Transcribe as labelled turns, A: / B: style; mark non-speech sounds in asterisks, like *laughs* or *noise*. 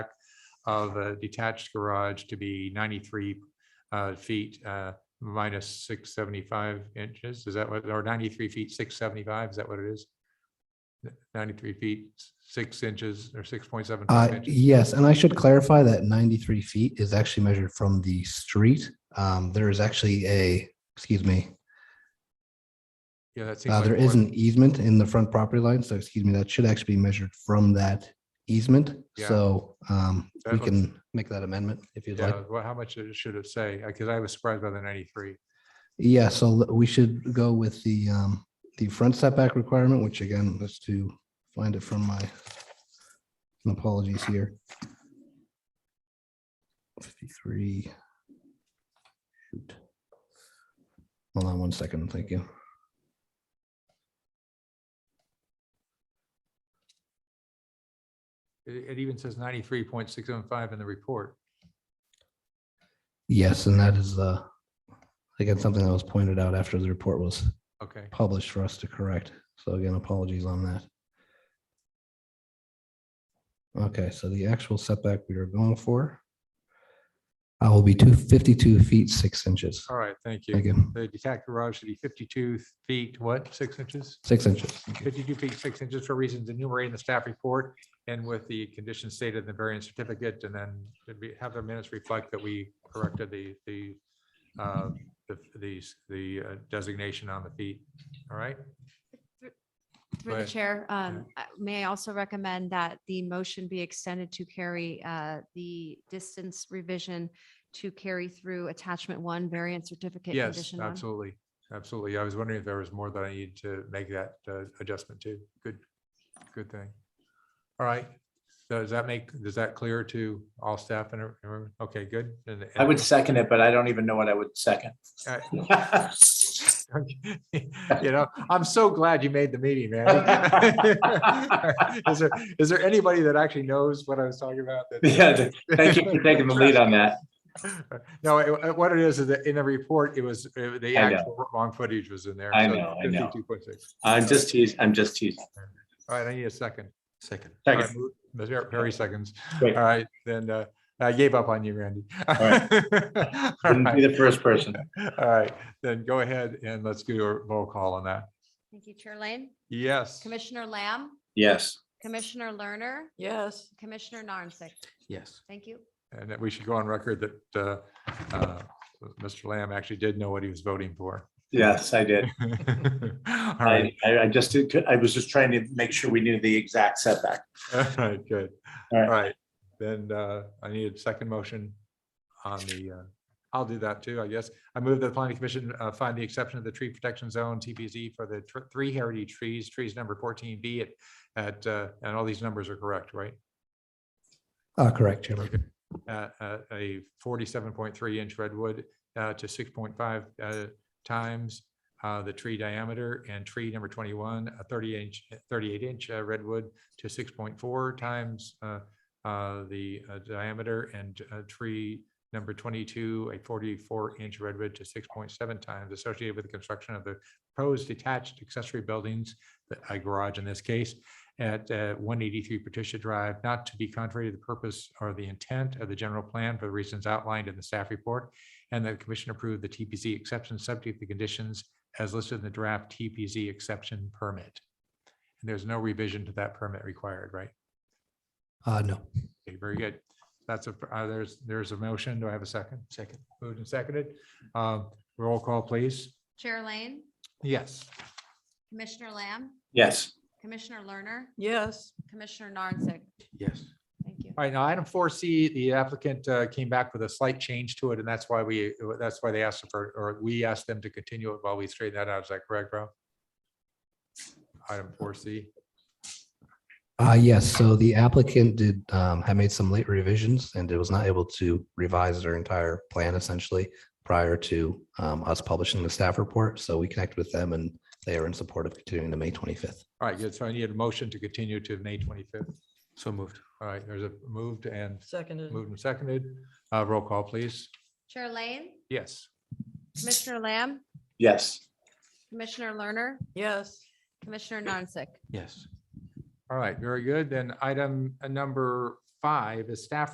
A: of a detached garage to be ninety-three uh, feet uh, minus six seventy-five inches. Is that what, or ninety-three feet, six seventy-five? Is that what it is? Ninety-three feet, six inches or six point seven
B: Uh,
A: five inches?
B: yes, and I should clarify that ninety-three feet is actually measured from the street. Um, there is actually a, excuse me,
A: Yeah, that seems
B: uh,
A: like
B: there
A: more-
B: is an easement in the front property line, so excuse me, that should actually be measured from that easement.
A: Yeah.
B: So, um,
A: That
B: we
A: looks-
B: can make that amendment if you'd like.
A: Yeah, well, how much it should it say? Because I was surprised by the ninety-three.
B: Yeah, so l- we should go with the, um, the front setback requirement, which again, let's to find it from my my apologies here. Fifty-three. Shoot. Hold on one second, thank you.
A: It, it even says ninety-three point six seven five in the report.
B: Yes, and that is, uh, again, something that was pointed out after the report was
A: Okay,
B: published for us to correct. So again, apologies on that. Okay, so the actual setback we are going for uh, will be two fifty-two feet, six inches.
A: all right, thank
B: Thank
A: you.
B: you.
A: The detached garage should be fifty-two feet, what, six inches?
B: Six inches.
A: Fifty-two feet, six inches for reasons enumerated in the staff report and with the conditions stated in the variance certificate. And then it'd be- have the minutes reflect that we corrected the, the, uh, the, the- the uh, designation on the feet. All right?
C: Through the
A: Right.
C: chair, um, uh, may I also recommend that the motion be extended to carry uh, the distance revision to carry through attachment one variant certificate.
A: Yes,
C: condition one?
A: absolutely. Absolutely. I was wondering if there was more that I needed to make that uh, adjustment to. Good, good thing. All right. Does that make, does that clear to all staff and, everyone? okay, good. And-
D: I would second it, but I don't even know what I would second. *laughs*
A: Alright. *laughs* You know, I'm so glad you made the meeting, man. *laughs* Is there, is there anybody that actually knows what I was talking about? that-
D: Yeah, Thank you for taking the lead on that.
A: *laughs* No, it- it- what it is, is that in the report, it was, uh, the
D: I know.
A: actual wrong footage was in there.
D: I
A: so
D: know, I know.
A: 52.6.
D: I'm just teasing, I'm just teasing.
A: All right, I need a second. Second.
D: Second.
A: Perry seconds. All
D: Great.
A: right, then uh, I gave up on you, Randy. All *laughs*
D: right. Wouldn't be the first person.
A: All right, then go ahead and let's do a roll call on that.
C: Thank you, Chair Lane.
A: Yes.
C: Commissioner Lamb,
D: Yes.
C: Commissioner Lerner,
E: Yes.
C: Commissioner Narnsick.
E: Yes.
C: Thank you.
A: And that we should go on record that uh, uh, Mr. Lamb actually did know what he was voting for. *laughs*
D: Yes, I did.
A: All
D: I,
A: right,
D: I I just, did- I was just trying to make sure we knew the exact setback.
A: all right, good.
D: All
A: All
D: right.
A: right, then uh, I need a second motion on the, uh, I'll do that too, I guess. I move that the planning commission uh, find the exception of the tree protection zone TPZ for the tr- three heritage trees, trees number 14B at- at, uh, and all these numbers are correct, right?
B: Uh, correct, Chairman.
A: uh, uh, a forty-seven point three inch redwood uh, to six point five uh, times uh, the tree diameter and tree number twenty-one, a thirty inch, thirty-eight inch uh, redwood to six point four times uh, uh, the uh, diameter and uh, tree number twenty-two, a forty-four inch redwood to six point seven times associated with the construction of the proposed detached accessory buildings, the- a garage in this case, at uh, 183 Patricia Drive, not to be contrary to the purpose or the intent of the general plan for the reasons outlined in the staff report, and that the commission approved the TPZ exception subject to conditions as listed in the draft TPZ exception permit. And there's no revision to that permit required, right?
B: Uh, no.
A: Okay, very good. That's a, uh, there's, there's a motion. Do I have a second? Second. Moved and seconded. Um, Roll call, please.
C: Chair Lane,
A: Yes.
C: Commissioner Lamb,
D: Yes.
C: Commissioner Lerner,
E: Yes.
C: Commissioner Narnsick.
E: Yes.
C: Thank you.
A: All right, now item four C, the applicant uh, came back with a slight change to it, and that's why we, that's why they asked for, or we asked them to continue it while we straighten that out. Is that correct, Rob? Item four C.
B: Uh, yes, so the applicant did, um, had made some late revisions and it was not able to revise their entire plan essentially prior to, um, us publishing the staff report. So we connect with them and they are in support of continuing to May twenty-fifth.
A: All right, good. So I need a motion to continue to May twenty-fifth. So moved. All right, there's a moved and
E: Seconded.
A: moved and seconded. Uh, Roll call, please.
C: Chair Lane,
A: Yes.
C: Commissioner Lamb,
D: Yes.
C: Commissioner Lerner,
E: Yes.
C: Commissioner Narnsick.
E: Yes.
A: All right, very good. Then item uh, number five is staff